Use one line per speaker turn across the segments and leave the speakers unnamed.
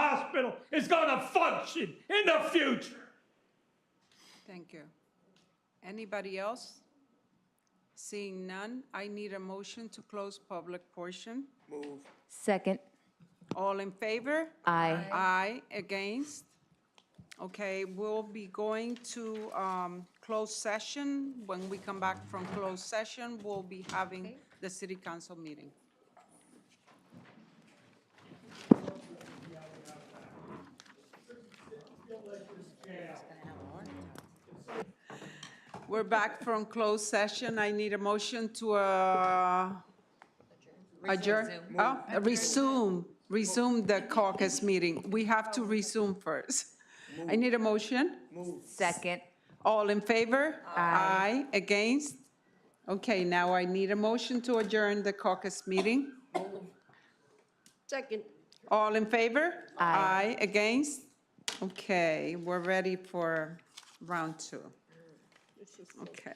hospital is going to function in the future.
Thank you. Anybody else? Seeing none, I need a motion to close public portion.
Second.
All in favor?
Aye.
Aye, against? Okay, we'll be going to um, closed session. When we come back from closed session, we'll be having the city council meeting. We're back from closed session. I need a motion to uh, adjourn. Oh, resume, resume the caucus meeting. We have to resume first. I need a motion.
Second.
All in favor? Aye. Against? Okay, now I need a motion to adjourn the caucus meeting.
Second.
All in favor?
Aye.
Aye. Against? Okay, we're ready for round two. Okay.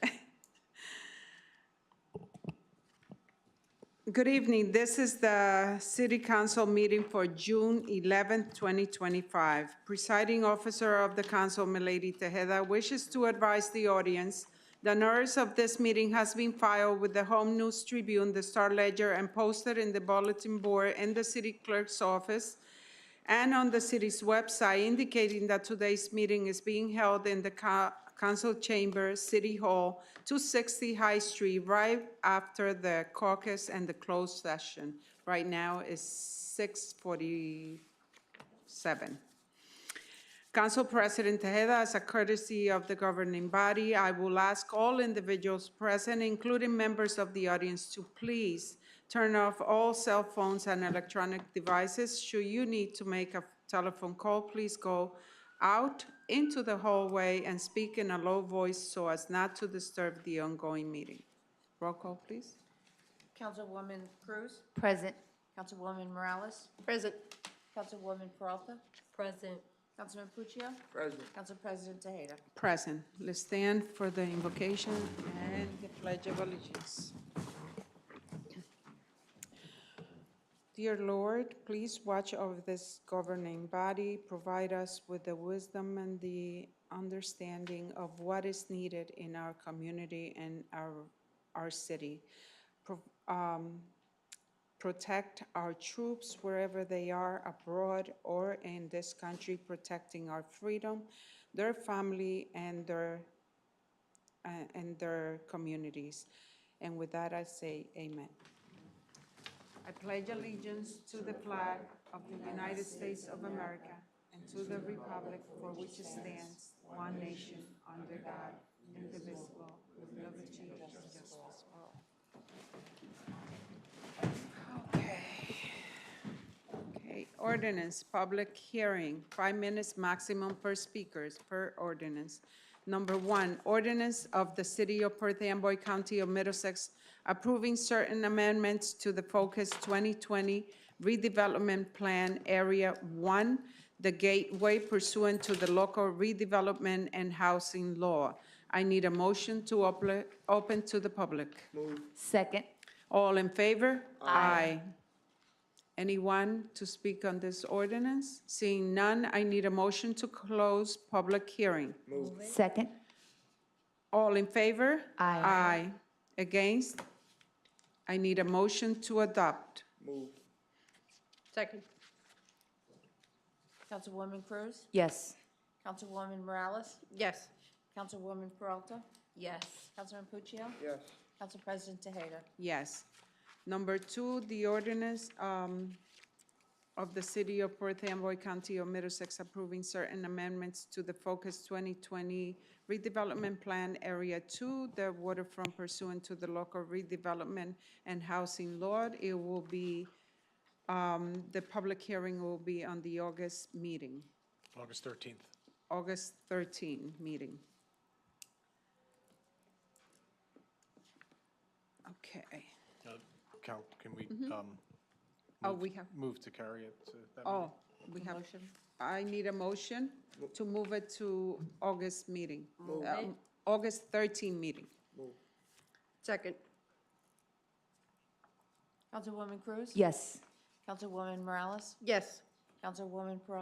Good evening. This is the City Council meeting for June 11th, 2025. Presiding Officer of the Council, Milady Tejeda, wishes to advise the audience the notice of this meeting has been filed with the Home News Tribune, the Star Ledger, and posted in the bulletin board in the city clerk's office and on the city's website indicating that today's meeting is being held in the co- council chamber, City Hall, 260 High Street, right after the caucus and the closed session. Right now is 6:47. Council President Tejeda, as a courtesy of the governing body, I will ask all individuals present, including members of the audience, to please turn off all cell phones and electronic devices. Should you need to make a telephone call, please go out into the hallway and speak in a low voice so as not to disturb the ongoing meeting. Roll call, please.
Councilwoman Cruz,
Present.
Councilwoman Morales,
Present.
Councilwoman Peralta,
Present.
Councilman Puccio,
President.
Council President Tejeda.
Present. Let's stand for the invocation and the pledge of allegiance. Dear Lord, please watch over this governing body. Provide us with the wisdom and the understanding of what is needed in our community and our, our city. Pro- um, protect our troops wherever they are abroad or in this country, protecting our freedom, their family, and their, uh, and their communities. And with that, I say amen. I pledge allegiance to the flag of the United States of America and to the republic for which it stands, one nation, under God, indivisible, with liberty and justice for all. Okay, ordinance, public hearing, five minutes maximum per speakers per ordinance. Number one, ordinance of the City of Perth Amboy County of Middlesex approving certain amendments to the Focus 2020 redevelopment plan area one, the gateway pursuant to the local redevelopment and housing law. I need a motion to ople- open to the public.
Second.
All in favor? Aye. Anyone to speak on this ordinance? Seeing none, I need a motion to close public hearing.
Second.
All in favor?
Aye.
Aye. Against? I need a motion to adopt.
Move.
Second.
Councilwoman Cruz,
Yes.
Councilwoman Morales,
Yes.
Councilwoman Peralta,
Yes.
Councilman Puccio,
Yes.
Council President Tejeda.
Yes. Number two, the ordinance um, of the City of Perth Amboy County of Middlesex approving certain amendments to the Focus 2020 redevelopment plan Area 2, the waterfront pursuant to the local redevelopment and housing law. It will be, um, the public hearing will be on the August meeting,
August 13th.
August 13 meeting. Okay.
Uh, Cal, can we um,
Oh, we have
move to carry it to that meeting?
Oh, we have, I need a motion to move it to August meeting. um, August 13 meeting.
Second.
Councilwoman Cruz?
Yes.
Councilwoman Morales,
Yes.
Councilwoman Peralta,